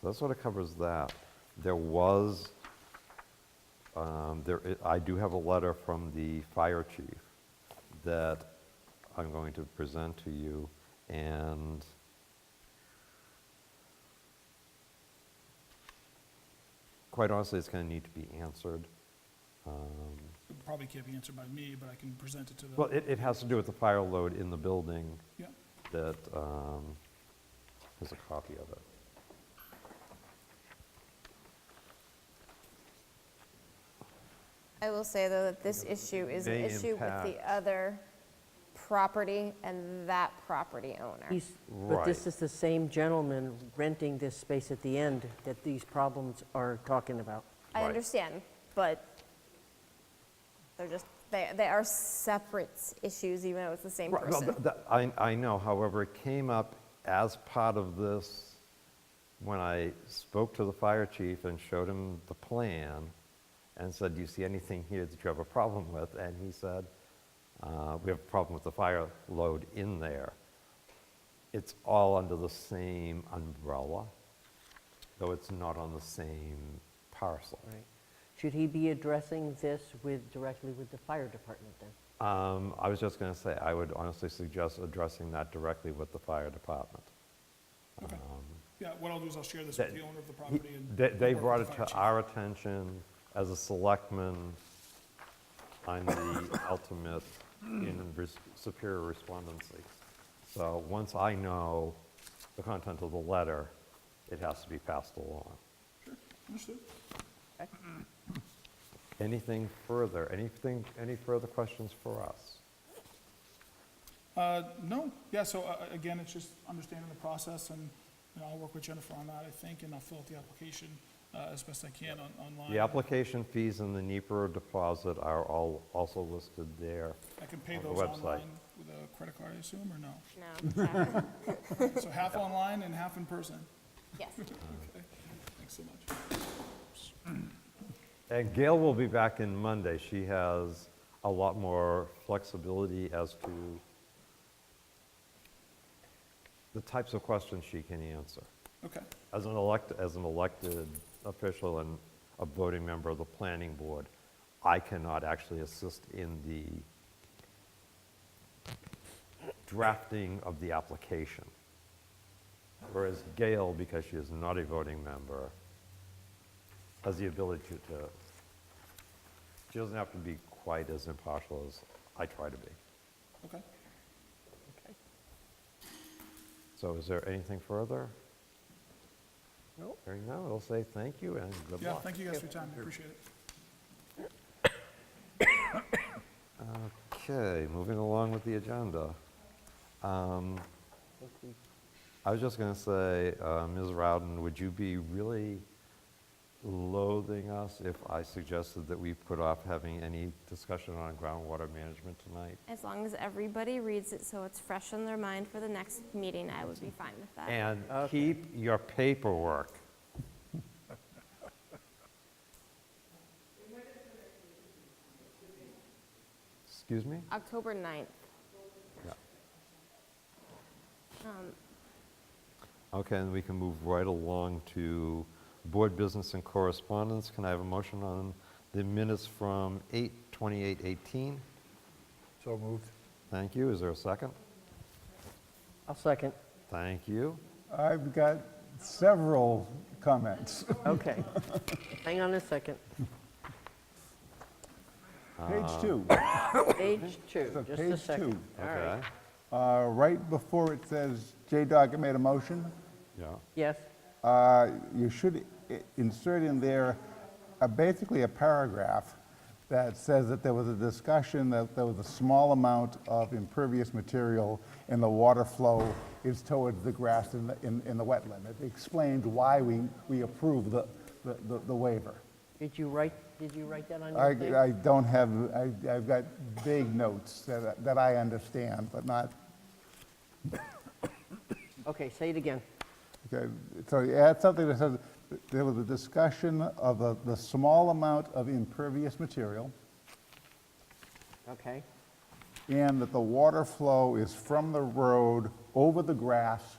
So that sort of covers that. There was, um, there, i- I do have a letter from the fire chief that I'm going to present to you, and quite honestly, it's going to need to be answered. Um, It Probably can't be answered by me, but I can present it to Well, the, it, it has to do with the fire load in the building yeah, that, um, there's a copy of it. I will say, though, that this issue is an May issue with the impact. other property and that property owner. He's- But Right. this is the same gentleman renting this space at the end that these problems are talking about. I Right. understand, but they're just, they, they are separate issues, even though it's the same Right, well, person. th- th- I, I know, however, it came up as part of this, when I spoke to the fire chief and showed him the plan, and said, do you see anything here that you have a problem with? And he said, "Uh, we have a problem with the fire load in there. It's all under the same umbrella, though it's not on the same parcel. Right. Should he be addressing this with, directly with the fire department then? Um, I was just going to say, I would honestly suggest addressing that directly with the fire department. okay. Yeah, what I'll do is I'll share this that- with the owner of the He- property and. They, they work brought with the it fire to chief. our attention as a selectman. I'm the ultimate in res- superior respondency. So once I know the content of the letter, it has to be passed along. Understood. Anything further, anything, any further questions for us? Uh, No, yeah, so uh, uh, again, it's just understanding the process, and you know, I'll work with Jennifer on that, I think, and I'll fill out the application uh, as best I can on- online. The application fees and the NEPR deposit are all, also listed there. I can pay on the those website. online with a credit card, I assume, or no? No, exactly. So half online and half in person. yes. Okay, thanks so much. And Gail will be back in Monday. She has a lot more flexibility as to the types of questions she can answer. Okay, As an elect, as an elected official and a voting member of the planning board, I cannot actually assist in the drafting of the application. Whereas Gail, because she is not a voting member, has the ability to, to- she doesn't have to be quite as impartial as I try to be. okay. So is there anything further? No. Hearing none, I'll say thank you and good luck. Yeah, thank you guys for your time, I appreciate it. Okay, moving along with the agenda. Um, I was just going to say, uh, Ms. Rowden, would you be really loathing us if I suggested that we put off having any discussion on groundwater management tonight? As long as everybody reads it so it's fresh in their mind for the next meeting, I would be fine with that. And keep your paperwork. Excuse me? October 9th. Yeah. Um. Okay, and we can move right along to board business and correspondence. Can I have a motion on the minutes from 8:28:18? So moved. Thank you. Is there a second? I'll second. Thank you. I've got several comments. Okay. Hang on a second. Page two, Page two, just a page second. two. All right. Okay. Uh, right before it says J-Dog made a motion, Yeah. Yes, uh, you should i- insert in there uh, basically a paragraph that says that there was a discussion that there was a small amount of impervious material and the water flow is towards the grass in the, in in the wetland. It explains why we, we approve the, the- the the waiver. did you write, did you write that on I, your thing? I don't have, I, I've got vague notes that, I- that I understand, but not, Okay, say it again. okay, so add something that says, there was a discussion of the, the small amount of impervious material, Okay, and that the water flow is from the road over the grass